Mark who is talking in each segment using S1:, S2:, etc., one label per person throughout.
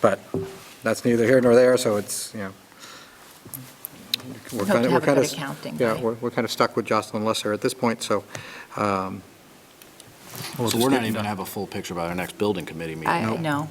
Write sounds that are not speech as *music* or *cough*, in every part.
S1: But that's neither here nor there, so it's, you know. we're
S2: We
S1: kinda- we're
S2: hope to have a
S1: kinda
S2: good
S1: s-
S2: accounting
S1: Yeah,
S2: by-
S1: we're, we're kind of stuck with Jocelyn Lesser at this point, so. um, we'll
S3: So
S1: just
S3: we're not
S1: get-
S3: even going to have a full picture by our next building committee meeting.
S2: I, no.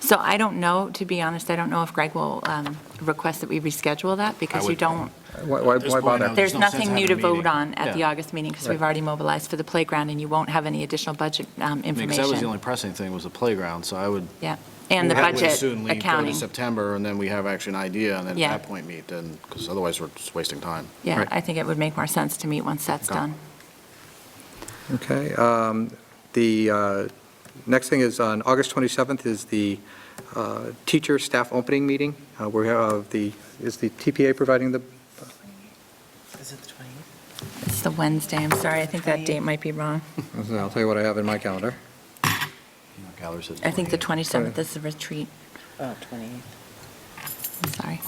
S2: So I don't know, to be honest, I don't know if Greg will um, request that we reschedule that because you
S3: would-
S2: don't,
S1: Why, why
S3: At this
S1: why
S3: point, I
S1: bother?
S3: would-
S2: there's
S3: There's no sense
S2: nothing new to
S3: having a
S2: vote
S3: meeting.
S2: on at the
S3: Yeah.
S2: August meeting because we've
S1: Right.
S2: already mobilized for the playground and you won't have any additional budget um,
S3: Because that was the only
S2: information.
S3: pressing thing was the playground, so I would.
S2: Yeah, and the
S3: I would
S2: budget
S3: soon leave
S2: accounting.
S3: September, and then we have actually an idea, and then
S2: Yeah.
S3: at that point meet, then, because otherwise we're just wasting time.
S2: Yeah,
S1: Right.
S2: I think it would make more sense to meet once that's
S3: Okay.
S2: done.
S1: Okay, um, the uh, next thing is on August 27th is the uh, teacher staff opening meeting. Uh, We have the, is the TPA providing the,
S4: Is it the 28th?
S2: It's the Wednesday, I'm sorry, I think that date might be wrong.
S1: I'll tell you what I have in my calendar.
S3: Gathers at
S2: I think the
S3: 28.
S2: 27th is the retreat,
S4: Oh, 28th.
S2: I'm sorry,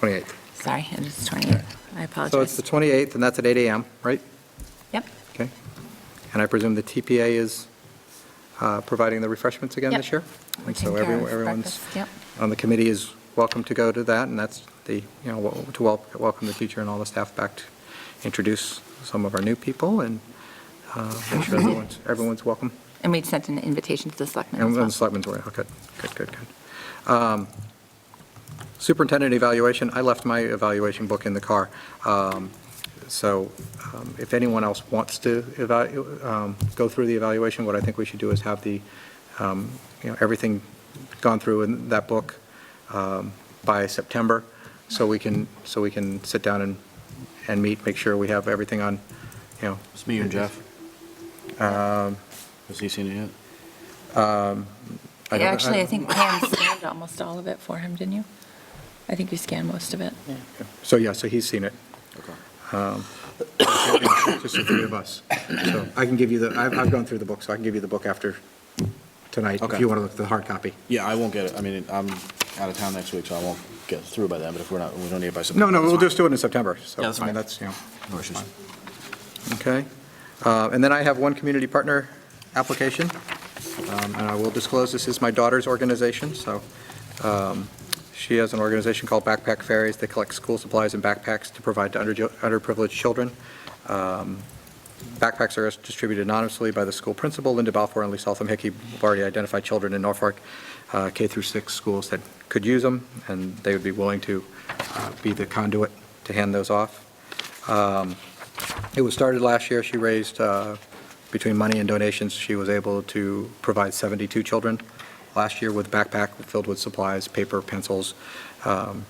S1: 28th.
S2: sorry, it is 28th, I apologize.
S1: So it's the 28th, and that's at 8 AM, right?
S2: Yep.
S1: Okay. And I presume the TPA is uh, providing the refreshments again
S2: Yep.
S1: this year?
S2: We're
S1: And so
S2: taking care
S1: everyone-
S2: of
S1: everyone's
S2: breakfast, yep.
S1: on the committee is welcome to go to that, and that's the, you know, wel- to wel- welcome the teacher and all the staff back to introduce some of our new people and uh, make sure everyone's, everyone's welcome.
S2: And we'd sent an invitation to the selectmen as
S1: And
S2: well.
S1: and selectmen's were, oh, good, good, good, good. Um, Superintendent evaluation, I left my evaluation book in the car. Um, So um, if anyone else wants to evalu- um, go through the evaluation, what I think we should do is have the, um, you know, everything gone through in that book um, by September, so we can, so we can sit down and, and meet, make sure we have everything on, you know,
S3: It's me and Jeff. Um, Has he seen it yet?
S1: I don't- I
S2: Actually, I
S1: don't- *laughs*
S2: think Pam scanned almost all of it for him, didn't you? I think you scanned most of it.
S1: so yeah, so he's seen it.
S3: Okay.
S1: just the three of us. So I can give you the, I've, I've gone through the book, so I can give you the book after tonight, if
S3: Okay.
S1: you want to look at the hard copy.
S3: Yeah, I won't get it. I mean, I'm out of town next week, so I won't get through by then, but if we're not, we don't need it by September.
S1: No, no,
S3: that's
S1: we'll
S3: fine.
S1: just do it in September, so.
S3: Yeah, that's
S1: I mean,
S3: fine.
S1: That's, you know,
S3: No issues.
S1: okay. Uh, And then I have one community partner application, Um, and I will disclose, this is my daughter's organization, so um, she has an organization called Backpack Fairies. They collect school supplies and backpacks to provide to underjo- underprivileged children. Um, Backpacks are distributed anonymously by the school principal, Linda Balfour and Lee Saltham Hickey. We've already identified children in Norfolk, uh, K through 6 schools that could use them, and they would be willing to uh, be the conduit to hand those off. Um, It was started last year. She raised, uh, between money and donations, she was able to provide 72 children last year with a backpack filled with supplies, paper, pencils, um,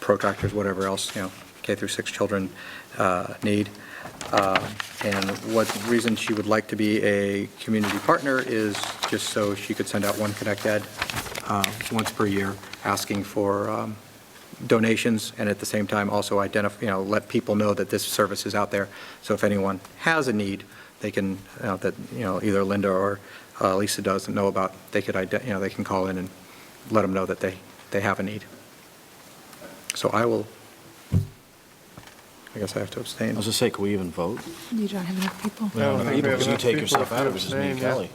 S1: protractors, whatever else, you know, K through 6 children uh, need. Uh, And what reason she would like to be a community partner is just so she could send out one Connect Ed uh, once per year, asking for um, donations, and at the same time also identify, you know, let people know that this service is out there. So if anyone has a need, they can, uh, that, you know, either Linda or uh, Lisa doesn't know about, they could, ide- you know, they can call in and let them know that they, they have a need. So I will, I guess I have to abstain.
S3: I was just say, could we even vote?
S2: You don't have enough people.
S5: I don't think we have
S3: Because you
S5: enough
S3: take
S5: people
S3: yourself
S5: to
S3: out of it, it's just me and
S5: abstain, yeah.
S3: Kelly.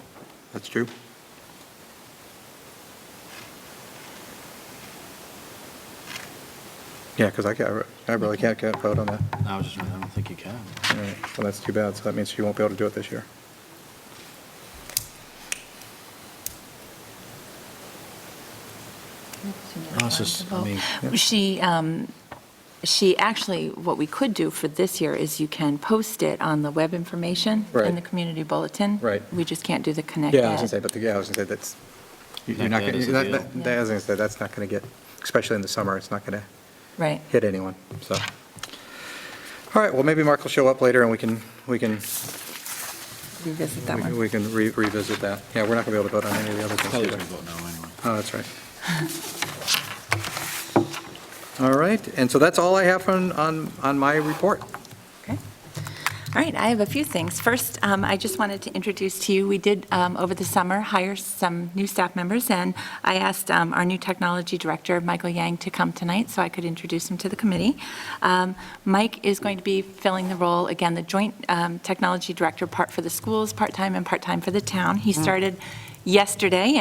S1: That's true. Yeah, because I can't, I really can't get a vote on that.
S3: No, I was just, I don't think you can.
S1: All right, Well, that's too bad, so that means she won't be able to do it this year.
S3: No, it's just, I mean,
S2: She, um, she actually, what we could do for this year is you can post it on the web information in
S1: Right.
S2: the community bulletin.
S1: Right.
S2: We just can't do the connect.
S1: Yeah, I was
S2: Ed.
S1: gonna say, but, the- yeah, I was gonna say, that's, you- you're not,
S3: That
S1: gonna-
S3: is a
S1: that-
S3: deal.
S1: that- that- I was gonna say, that's not gonna get, especially in the summer, it's not gonna
S2: Right.
S1: hit anyone, so. All right, well, maybe Mark will show up later and we can, we can,
S2: Revisit that
S1: we can-
S2: one.
S1: we can re- revisit that. Yeah, we're not gonna be able to vote on any of the other things
S3: Kelly's
S1: either.
S3: going to vote no anyway.
S1: Oh, that's right. All right, and so that's all I have on, on, on my report.
S2: Okay. All right, I have a few things. First, um, I just wanted to introduce to you, we did, um, over the summer, hire some new staff members, and I asked um, our new technology director, Michael Yang, to come tonight so I could introduce him to the committee. Um, Mike is going to be filling the role, again, the joint um, technology director, part for the schools, part-time, and part-time for the town. He started yesterday,